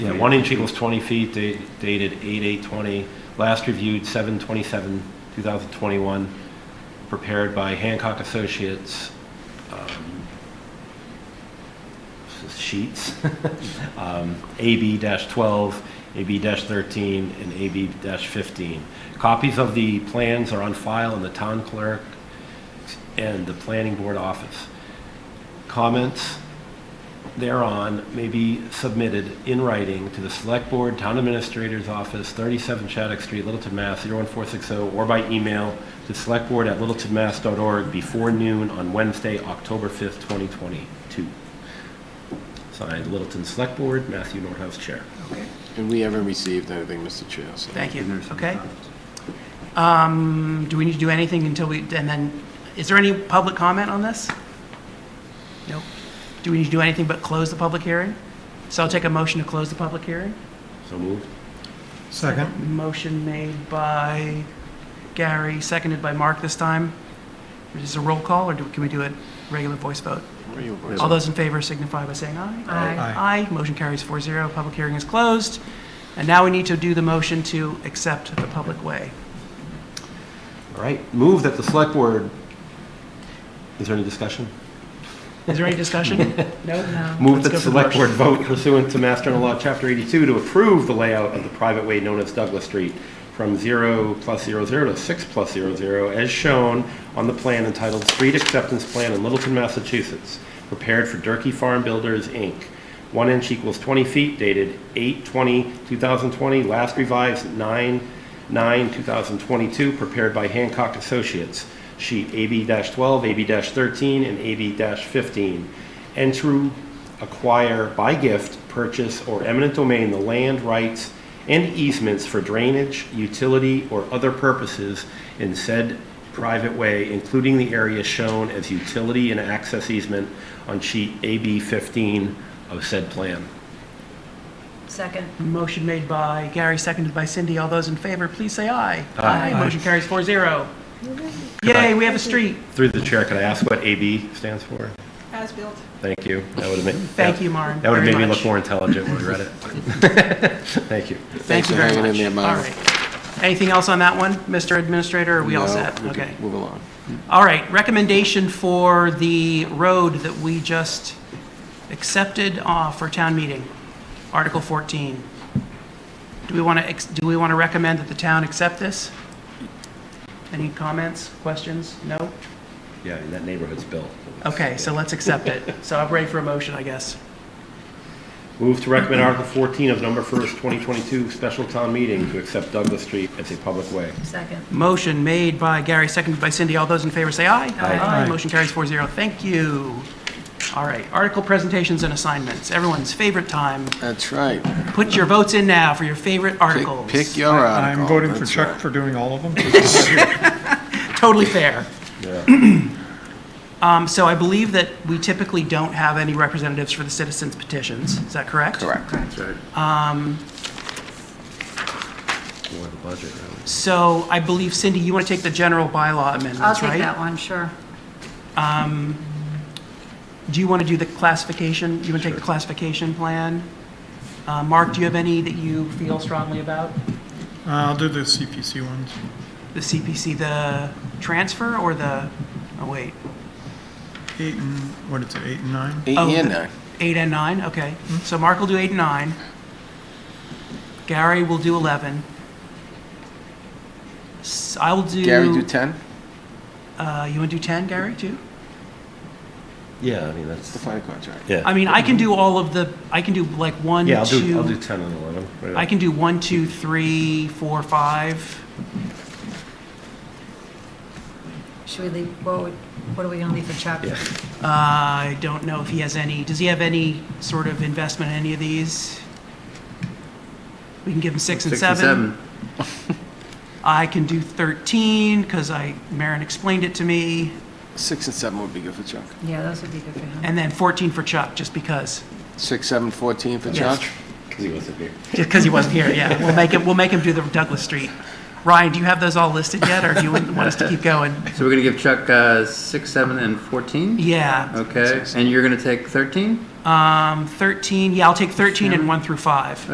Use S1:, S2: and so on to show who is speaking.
S1: Yeah, one inch equals 20 feet, da- dated 8/8/20, last reviewed 7/27/2021, prepared by Hancock Associates. um, Sheets, um, AB-12, AB-13, and AB-15. Copies of the plans are on file in the town clerk and the planning board office. Comments? thereon may be submitted in writing to the Select Board, Town Administrator's Office, 37 Shattuck Street, Littleton, Mass. 01460, or by email to selectboard@littletonmass.org before noon on Wednesday, October 5th, 2022. Signed, Littleton Select Board, Matthew Nordhaus, Chair.
S2: Okay,
S3: And we haven't received anything, Mr. Chair, so.
S2: thank you,
S1: There's no
S2: okay.
S1: comments.
S2: Um, Do we need to do anything until we, and then, is there any public comment on this? No. Do we need to do anything but close the public hearing? So I'll take a motion to close the public hearing.
S1: So moved.
S4: Second.
S2: Motion made by Gary, seconded by Mark this time. Is this a roll call, or do- can we do a regular voice vote?
S3: Where are you, boys?
S2: All those in favor signify by saying aye.
S4: Aye.
S2: Aye. Motion carries 4-0. Public hearing is closed. And now we need to do the motion to accept the public way.
S1: All right, move that the Select Board, is there any discussion?
S2: Is there any discussion? No?
S1: Move that the
S2: Let's go for the
S1: select board
S2: motion.
S1: vote pursuant to Master General Law, Chapter 82, to approve the layout of the private way known as Douglas Street from 0 plus 00 to 6 plus 00, as shown on the plan entitled Street Acceptance Plan in Littleton, Massachusetts, prepared for Durkey Farm Builders, Inc. One inch equals 20 feet, dated 8/20/2020, last revised 9/9/2022, prepared by Hancock Associates, sheet AB-12, AB-13, and AB-15, and to acquire by gift, purchase, or eminent domain the land rights and easements for drainage, utility, or other purposes in said private way, including the area shown as utility and access easement on sheet AB 15 of said plan.
S5: Second.
S2: Motion made by Gary, seconded by Cindy. All those in favor, please say aye.
S1: Aye.
S2: Motion carries 4-0. Yay, we have a street.
S1: Through the chair, could I ask what AB stands for?
S5: As-built.
S1: Thank you. That would have made,
S2: Thank you, Maren.
S1: that would have
S2: very
S1: made me
S2: much.
S1: look more intelligent when I read it. Thank you.
S2: Thank
S3: Thanks
S2: you
S3: for
S2: very
S3: hanging in
S2: much.
S3: there, Maren.
S2: All right. Anything else on that one, Mr. Administrator? Are we all
S3: No,
S2: set?
S3: we can
S2: Okay.
S3: Move along.
S2: All right, recommendation for the road that we just accepted uh, for town meeting, Article 14. Do we want to, do we want to recommend that the town accept this? Any comments, questions? No?
S1: Yeah, I mean, that neighborhood's built.
S2: Okay, so let's accept it. So I'm ready for a motion, I guess.
S1: Move to recommend Article 14 of number first, 2022, special town meeting to accept Douglas Street as a public way.
S5: Second.
S2: Motion made by Gary, seconded by Cindy. All those in favor say aye.
S5: Aye.
S2: Motion carries 4-0. Thank you. All right, article presentations and assignments, everyone's favorite time.
S3: That's right.
S2: Put your votes in now for your favorite
S3: Pick-
S2: articles.
S3: Pick your article.
S4: I'm voting for
S3: That's
S4: Chuck
S3: right.
S4: for doing all of them. Uh,
S2: Totally fair.
S1: Yeah.
S2: Um, So I believe that we typically don't have any representatives for the citizens petitions. Is that correct?
S3: Correct.
S1: More of a budget, really.
S2: So I believe, Cindy, you want to take the general bylaw
S5: I'll
S2: amendments, right?
S5: take that one, sure.
S2: Do you want to do the classification? You want to take the classification plan? Uh, Mark, do you have any that you feel strongly about?
S4: I'll do the CPC ones.
S2: The CPC, the transfer or the, oh, wait,
S4: Eight and, what is it, eight and nine?
S3: Eight
S2: Oh,
S3: and
S2: the-
S3: nine.
S2: eight and nine? Okay. So Mark will do eight and nine. Gary will do 11. S- I will do.
S3: Gary, do 10?
S2: Uh, you want to do 10, Gary, too?
S1: Yeah, I mean,
S3: The
S1: that's,
S3: fire contract.
S2: I
S1: yeah.
S2: mean, I can do all of the, I can do like one,
S1: Yeah, I'll do, I'll do
S2: two,
S1: 10 and 11. right
S2: I
S1: up.
S2: can do one, two, three, four, five.
S5: Should we leave, what would- what are we going to leave for Chuck?
S1: Yeah.
S2: Uh, I don't know if he has any, does he have any sort of investment in any of these? We can give him six and seven. I can do 13, because I, Maren explained it to me,
S3: Six and seven would be good for Chuck.
S5: Yeah, those would be good for him.
S2: and then 14 for Chuck, just because.
S3: Six, seven, 14 for
S2: Yes.
S3: Chuck?
S1: Because he wasn't here.
S2: Just because he wasn't here, yeah. We'll make him, we'll make him do the Douglas Street. Ryan, do you have those all listed yet, or do you want us to keep going?
S6: So we're gonna give Chuck uh, six, seven, and fourteen.
S2: Yeah,
S6: Okay, and you're gonna take thirteen.
S2: um, 13, yeah, I'll take 13 and 1 through 5.